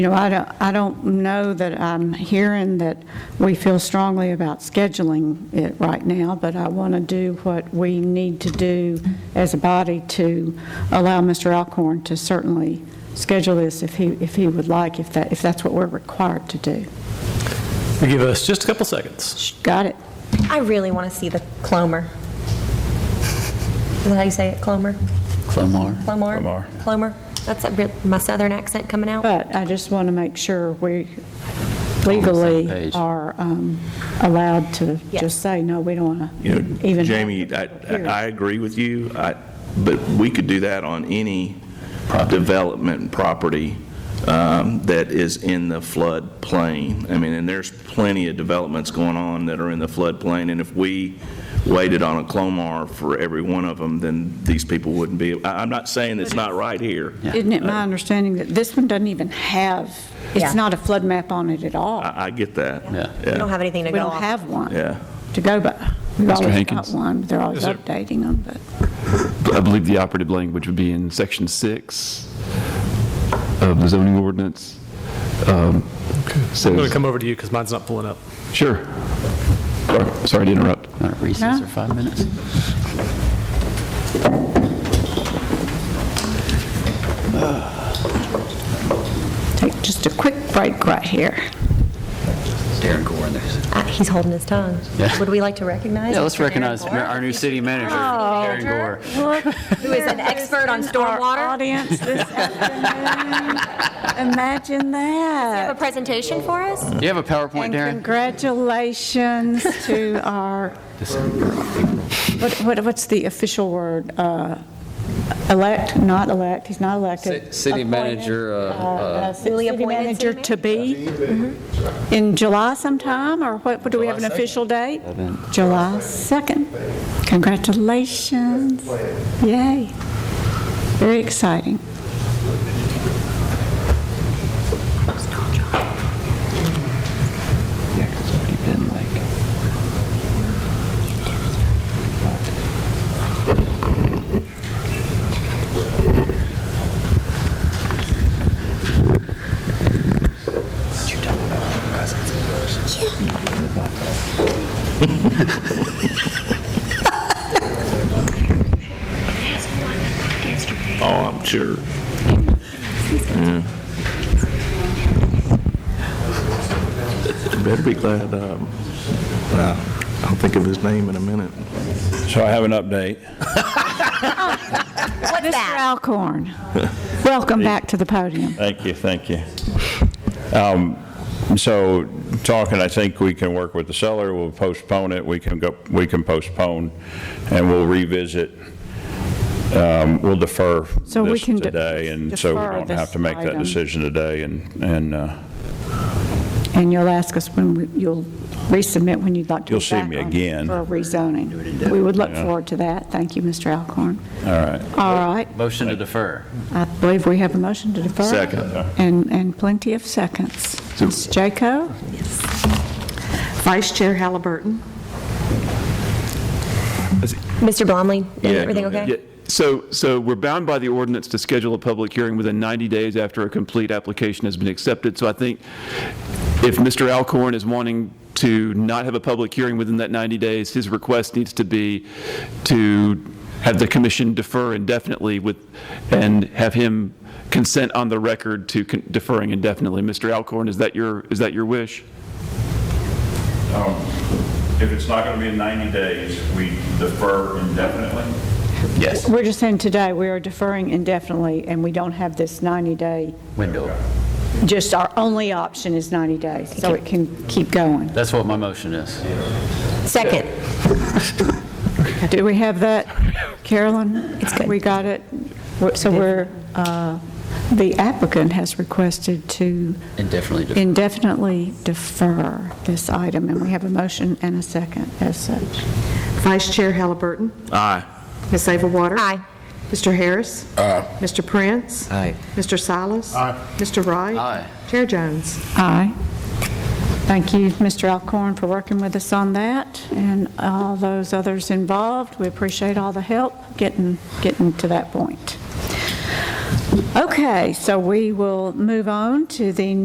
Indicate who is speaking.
Speaker 1: You know, I don't, I don't know that I'm hearing that we feel strongly about scheduling it right now, but I want to do what we need to do as a body to allow Mr. Alcorn to certainly schedule this if he, if he would like, if that, if that's what we're required to do.
Speaker 2: Give us just a couple seconds.
Speaker 1: Got it?
Speaker 3: I really want to see the clomer. Is that how you say it, clomer?
Speaker 4: Clomar.
Speaker 3: Clomar?
Speaker 5: Clomar.
Speaker 3: Clomer. That's a bit- my southern accent coming out.
Speaker 1: But I just want to make sure we
Speaker 4: page.
Speaker 1: legally are um, allowed to
Speaker 3: Yes.
Speaker 1: just say, no, we don't want to
Speaker 5: You
Speaker 1: even.
Speaker 5: know,
Speaker 1: have
Speaker 5: Jamie,
Speaker 1: the
Speaker 5: I, I-
Speaker 1: hearing.
Speaker 5: I agree with you, I, but we could do that on any development property um, that is in the floodplain. I mean, and there's plenty of developments going on that are in the floodplain, and if we waited on a Clomar for every one of them, then these people wouldn't be, I, I'm not saying it's not right here.
Speaker 1: Isn't it
Speaker 2: Uh,
Speaker 1: my understanding that this one doesn't even have,
Speaker 3: Yeah.
Speaker 1: it's not a flood map on it at
Speaker 2: Uh,
Speaker 1: all?
Speaker 5: I, I get that.
Speaker 4: Yeah.
Speaker 3: We don't have anything to
Speaker 1: We
Speaker 3: go
Speaker 1: don't
Speaker 3: off.
Speaker 1: have one
Speaker 5: Yeah.
Speaker 1: to go by. We've always got
Speaker 6: Hankins?
Speaker 1: one, they're always
Speaker 2: Is there-
Speaker 1: updating them, but.
Speaker 6: I believe the operative language would be in section six of the zoning ordinance. Um,
Speaker 2: I'm going to
Speaker 6: Says,
Speaker 2: come over to you because mine's not pulling up.
Speaker 6: sure. Sorry- Sorry to interrupt.
Speaker 4: All right, recess
Speaker 1: No.
Speaker 4: for five minutes.
Speaker 1: Take just a quick break right here.
Speaker 4: Darren Gore in there.
Speaker 3: Uh, He's holding his tongue.
Speaker 4: Yeah.
Speaker 3: Would we like to recognize?
Speaker 4: Yeah, let's
Speaker 3: Mr. Darren
Speaker 4: recognize
Speaker 3: Moore,
Speaker 4: our new city manager, Darren Gore.
Speaker 3: Who is an expert on
Speaker 1: Our
Speaker 3: stormwater? Do
Speaker 1: audience this afternoon. Imagine
Speaker 3: you have
Speaker 1: that.
Speaker 3: a presentation for us?
Speaker 4: Do you have a PowerPoint,
Speaker 1: And
Speaker 4: Darren?
Speaker 1: congratulations to our, what, what- what's the official word? Uh, Elect, not elect, he's not elected.
Speaker 7: Ci- city
Speaker 1: Appointed,
Speaker 7: manager, uh,
Speaker 1: uh, ci-
Speaker 3: Newly
Speaker 1: City
Speaker 3: appointed city
Speaker 1: manager to be in July sometime, or what, what do we have an official date? July 2nd. Congratulations. Yay. Very exciting.
Speaker 4: Yeah, 'cause it's already been like.
Speaker 5: Oh, I'm sure. Yeah. Better be glad, um, uh, I'll think of his name in a minute.
Speaker 8: So I have an update.
Speaker 1: Mr. Alcorn, welcome back to the podium.
Speaker 8: Thank you, thank you. Um, So talking, I think we can work with the seller, we'll postpone it, we can go, we can postpone, and we'll revisit, um, we'll defer
Speaker 1: So we
Speaker 8: this
Speaker 1: can de-
Speaker 8: today, and so we
Speaker 1: defer
Speaker 8: don't
Speaker 1: this
Speaker 8: have to make that
Speaker 1: item.
Speaker 8: decision today, and, and uh,
Speaker 1: And you'll ask us when, we- you'll resubmit when you'd like to.
Speaker 8: You'll
Speaker 1: be
Speaker 8: see
Speaker 1: back
Speaker 8: me
Speaker 1: on
Speaker 8: again.
Speaker 1: For rezoning. We would look forward to that. Thank you, Mr. Alcorn.
Speaker 8: all right.
Speaker 1: All right,
Speaker 4: Motion to defer.
Speaker 1: I believe we have a motion to defer.
Speaker 5: Second.
Speaker 1: And, and plenty of seconds. Ms. Jaco?
Speaker 9: Vice Chair Halliburton.
Speaker 3: Mr. Blomley,
Speaker 5: Yeah,
Speaker 3: everything
Speaker 5: go
Speaker 3: okay?
Speaker 5: ahead.
Speaker 6: Yeah, So, so we're bound by the ordinance to schedule a public hearing within 90 days after a complete application has been accepted. So I think if Mr. Alcorn is wanting to not have a public hearing within that 90 days, his request needs to be to have the commission defer indefinitely with, and have him consent on the record to con- deferring indefinitely. Mr. Alcorn, is that your, is that your wish?
Speaker 8: Um, If it's not going to be in 90 days, we defer indefinitely?
Speaker 4: Yes.
Speaker 1: We're just saying today, we are deferring indefinitely, and we don't have this 90-day,
Speaker 4: Window.
Speaker 1: just our only option is 90 days, so it can keep going.
Speaker 4: That's what my motion is.
Speaker 3: Second.
Speaker 1: Do we have that, Carolyn? It's good. We got it? So we're, uh, the applicant has requested to
Speaker 4: Indefinitely defer.
Speaker 1: indefinitely defer this item, and we have a motion and a second as such.
Speaker 9: Vice Chair Halliburton.
Speaker 5: Aye.
Speaker 9: Ms. Ava Water.
Speaker 3: Aye.
Speaker 9: Mr. Harris. Aye. Mr. Prince.
Speaker 4: Aye.
Speaker 9: Mr. Silas. Aye. Mr. Wright.
Speaker 4: Aye.
Speaker 9: Chair Jones.
Speaker 1: Aye. Thank you, Mr. Alcorn, for working with us on that, and all those others involved. We appreciate all the help getting, getting to that point. Okay, so we will move on to the